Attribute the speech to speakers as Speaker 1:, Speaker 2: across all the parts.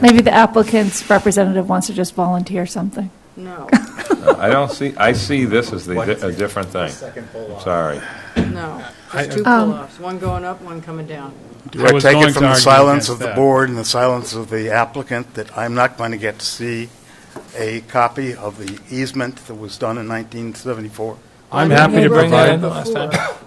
Speaker 1: Maybe the applicant's representative wants to just volunteer something.
Speaker 2: No,
Speaker 3: I don't see, I see this as the, a different thing.
Speaker 4: Second pull
Speaker 3: I'm
Speaker 4: off.
Speaker 3: sorry.
Speaker 2: no. There's two
Speaker 5: Oh.
Speaker 2: pull-offs, one going up, one coming down.
Speaker 5: I
Speaker 4: I
Speaker 5: was
Speaker 4: take
Speaker 5: going
Speaker 4: it
Speaker 5: to
Speaker 4: from the
Speaker 5: argue
Speaker 4: silence
Speaker 5: against
Speaker 4: of the
Speaker 5: that.
Speaker 4: board and the silence of the applicant that I'm not going to get to see a copy of the easement that was done in 1974.
Speaker 5: I'm
Speaker 2: Well,
Speaker 5: happy
Speaker 2: they
Speaker 5: to
Speaker 2: wrote
Speaker 5: provide,
Speaker 2: that before.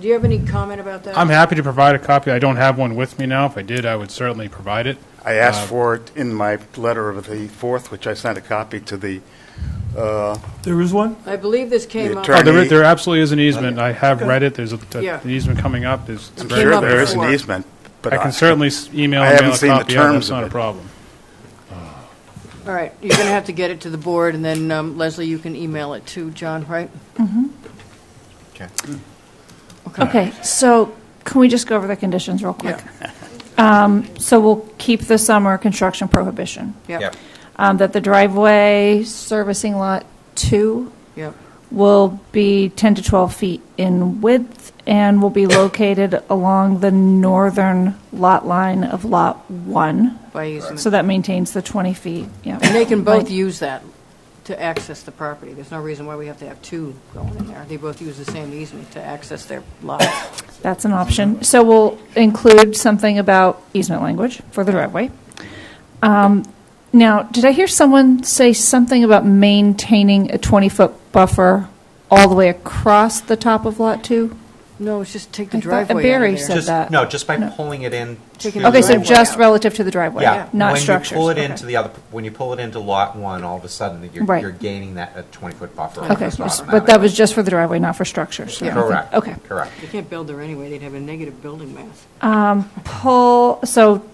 Speaker 2: Do you have any comment about that?
Speaker 5: I'm happy to provide a copy. I don't have one with me now. If I did, I would certainly provide it.
Speaker 4: I asked
Speaker 5: Uh,
Speaker 4: for it in my letter of the 4th, which I sent a copy to the, uh,
Speaker 6: There is one?
Speaker 2: I believe this came up.
Speaker 4: attorney-
Speaker 5: Oh, there, i- there absolutely is an easement. I have read it. There's a, a-
Speaker 2: Yeah.
Speaker 5: an easement coming up. There's, it's
Speaker 4: I'm
Speaker 5: very
Speaker 4: sure
Speaker 2: up
Speaker 4: there is an
Speaker 2: before.
Speaker 4: easement, but
Speaker 5: I
Speaker 4: I
Speaker 5: can certainly s- email
Speaker 4: I
Speaker 5: and
Speaker 4: haven't
Speaker 5: mail a
Speaker 4: seen the
Speaker 5: copy out.
Speaker 4: terms
Speaker 5: That's
Speaker 4: of
Speaker 5: not a
Speaker 4: it.
Speaker 5: problem.
Speaker 2: All right, you're going to have to get it to the board, and then um, Leslie, you can email it to John, right?
Speaker 1: Okay, so can we just go over the conditions real quick? Um,
Speaker 2: Yeah.
Speaker 1: So we'll keep the summer construction prohibition,
Speaker 2: Yep,
Speaker 1: um, that the driveway servicing lot two
Speaker 2: yep.
Speaker 1: will be 10 to 12 feet in width and will be located along the northern lot line of lot one.
Speaker 2: By easement.
Speaker 1: So that maintains the 20 feet, yeah.
Speaker 2: And they can both
Speaker 1: Right.
Speaker 2: use that to access the property. There's no reason why we have to have two going in there. They both use the same easement to access their lot.
Speaker 1: That's an option. So we'll include something about easement language for the driveway. Um, Now, did I hear someone say something about maintaining a 20-foot buffer all the way across the top of Lot 2?
Speaker 2: No, it's just take
Speaker 1: I
Speaker 2: the
Speaker 1: thought- uh,
Speaker 2: driveway out of
Speaker 1: Barry
Speaker 2: there.
Speaker 1: said-
Speaker 7: Just,
Speaker 1: that.
Speaker 7: no, just by
Speaker 1: No.
Speaker 7: pulling it in
Speaker 2: Taking
Speaker 7: to-
Speaker 2: the
Speaker 1: Okay, so
Speaker 2: driveway
Speaker 1: just
Speaker 2: out.
Speaker 1: relative to the driveway,
Speaker 7: Yeah.
Speaker 1: not structures?
Speaker 7: When you pull it
Speaker 1: Okay.
Speaker 7: into the other, when you pull it into lot one, all of a sudden, that you're,
Speaker 1: Right.
Speaker 7: you're gaining that 20-foot buffer.
Speaker 1: Okay,
Speaker 7: almost
Speaker 1: s- but
Speaker 7: automatically.
Speaker 1: that was just for the driveway, not for structures? or anything.
Speaker 7: Correct.
Speaker 1: Okay.
Speaker 7: Correct.
Speaker 2: You can't build there anyway, they'd have a negative building mass.
Speaker 1: Pull, so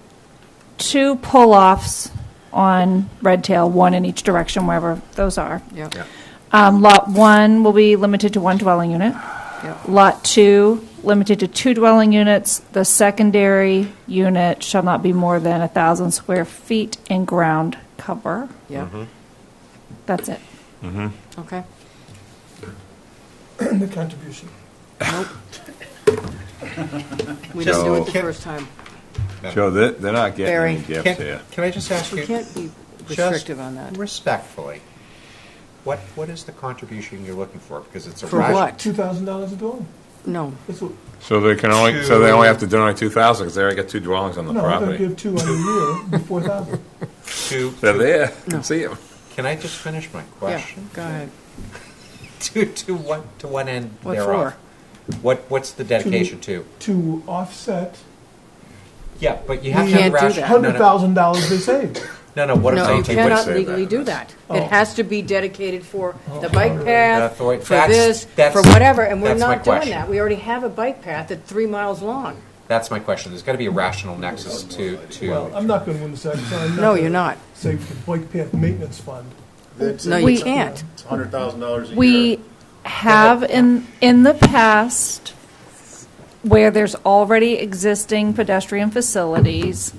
Speaker 1: two pull-offs on Red Tail, one in each direction, wherever those are.
Speaker 2: Yep,
Speaker 7: Yeah.
Speaker 1: Um, Lot 1 will be limited to one dwelling unit.
Speaker 2: yep.
Speaker 1: Lot 2, limited to two dwelling units. The secondary unit shall not be more than 1,000 square feet in ground cover.
Speaker 2: Yeah,
Speaker 1: That's it.
Speaker 2: okay.
Speaker 6: The contribution.
Speaker 2: Nope. We didn't do it the
Speaker 3: So-
Speaker 2: first time.
Speaker 3: Joe, they're, they're not
Speaker 2: Barry.
Speaker 3: getting any gifts here.
Speaker 7: Can, can I just ask
Speaker 2: We
Speaker 7: you?
Speaker 2: can't be
Speaker 7: just
Speaker 2: restrictive on that.
Speaker 7: Respectfully, what, what is the contribution you're looking for? Because it's a.
Speaker 2: For
Speaker 7: rash-
Speaker 2: what?
Speaker 6: $2,000 a dwelling.
Speaker 2: No,
Speaker 6: That's what,
Speaker 3: So they can only, so they only have to donate 2,000 because they already got two dwellings on the
Speaker 6: no, I'm going to
Speaker 3: property.
Speaker 6: give two on a year, four thousand.
Speaker 7: To,
Speaker 3: They're there, I can see 'em.
Speaker 7: can I just finish my
Speaker 2: yeah,
Speaker 7: question?
Speaker 2: go ahead.
Speaker 7: To, to what, to what end
Speaker 2: What
Speaker 7: thereof? What, what's the dedication to?
Speaker 6: To offset
Speaker 7: Yeah, but you have
Speaker 2: You
Speaker 7: to
Speaker 2: can't
Speaker 7: have
Speaker 2: do
Speaker 7: rationale.
Speaker 2: that.
Speaker 6: hundred thousand dollars they saved.
Speaker 7: No, no, what I'm
Speaker 2: No, you
Speaker 7: saying to you
Speaker 2: cannot
Speaker 7: is.
Speaker 3: say that.
Speaker 2: legally do that. It
Speaker 6: Oh.
Speaker 2: has to be dedicated for the bike
Speaker 7: Oh, That's
Speaker 2: path,
Speaker 7: the way-
Speaker 2: for
Speaker 7: that's-
Speaker 2: this, for
Speaker 7: that's-
Speaker 2: whatever, and we're
Speaker 7: that's my
Speaker 2: not doing
Speaker 7: question.
Speaker 2: that. We already have a bike path that's three miles long.
Speaker 7: That's my question. There's got to be a rational nexus to,
Speaker 6: Well,
Speaker 2: um,
Speaker 7: to,
Speaker 6: I'm not going to win this action. I'm
Speaker 2: No,
Speaker 6: gonna
Speaker 2: you're not.
Speaker 6: Save the bike path maintenance fund.
Speaker 2: No, you
Speaker 1: We-
Speaker 2: can't.
Speaker 4: It's $100,000 a year.
Speaker 1: We have in, in the past, where there's already existing pedestrian facilities,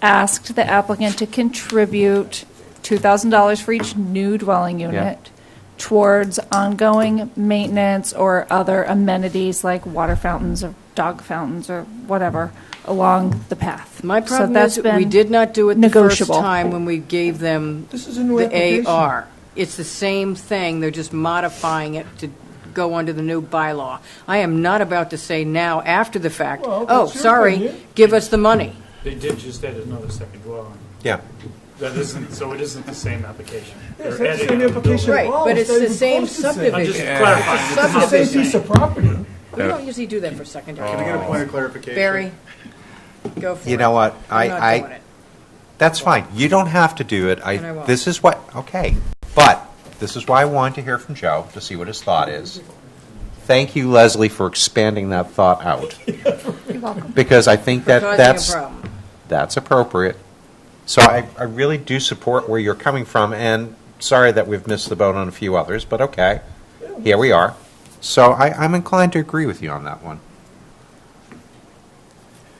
Speaker 1: asked the applicant to contribute $2,000 for each new dwelling unit towards ongoing maintenance or other amenities like water fountains or dog fountains or whatever along the path.
Speaker 2: My
Speaker 1: So
Speaker 2: problem
Speaker 1: that's
Speaker 2: is, we
Speaker 1: been
Speaker 2: did not do it the first
Speaker 1: negotiable.
Speaker 2: time when we gave them
Speaker 6: This is a new
Speaker 2: the
Speaker 6: application.
Speaker 2: AR. It's the same thing, they're just modifying it to go under the new bylaw. I am not about to say now, after the fact,
Speaker 6: Well,
Speaker 2: oh,
Speaker 6: that's your
Speaker 2: sorry,
Speaker 6: opinion."
Speaker 2: give us the money.
Speaker 8: They did just add another second dwelling.
Speaker 7: yeah.
Speaker 8: That isn't, so it isn't the same application.
Speaker 6: Yes,
Speaker 8: They're
Speaker 6: that's the
Speaker 8: adding
Speaker 6: same
Speaker 8: another
Speaker 6: application.
Speaker 8: building.
Speaker 2: Right,
Speaker 6: Wow,
Speaker 2: but it's
Speaker 6: it's not
Speaker 2: the
Speaker 6: even
Speaker 2: same
Speaker 6: close to the same.
Speaker 8: I'm just
Speaker 2: subdivision.
Speaker 8: clarifying. It's
Speaker 6: It's the
Speaker 8: not the
Speaker 6: same
Speaker 2: Subdivision.
Speaker 6: piece
Speaker 8: same.
Speaker 6: of property.
Speaker 2: We don't usually do that for secondary.
Speaker 4: Can I get a point of clarification?
Speaker 2: Barry, go for it.
Speaker 7: You know what? I-
Speaker 2: I'm not
Speaker 7: I-
Speaker 2: doing it.
Speaker 7: That's fine. You don't have to do it.
Speaker 2: And I
Speaker 7: I,
Speaker 2: won't.
Speaker 7: this is what, okay. But this is why I wanted to hear from Joe, to see what his thought is. Thank you, Leslie, for expanding that thought out. Because I think
Speaker 2: We're
Speaker 7: that
Speaker 2: causing a
Speaker 7: that's,
Speaker 2: problem.
Speaker 7: that's appropriate. So I, I really do support where you're coming from, and sorry that we've missed the boat on a few others, but okay. Here we are. So I, I'm inclined to agree with you on that one.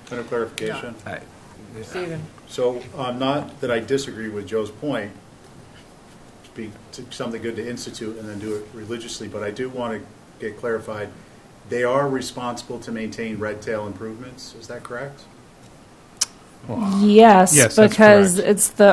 Speaker 9: Point of clarification.
Speaker 2: Stephen,
Speaker 9: So, um, not that I disagree with Joe's point, be to- something good to institute and then do it religiously, but I do want to get clarified. They are responsible to maintain red tail improvements, is that correct?
Speaker 1: Yes,
Speaker 5: Yes, that's
Speaker 1: because
Speaker 5: correct.
Speaker 1: it's the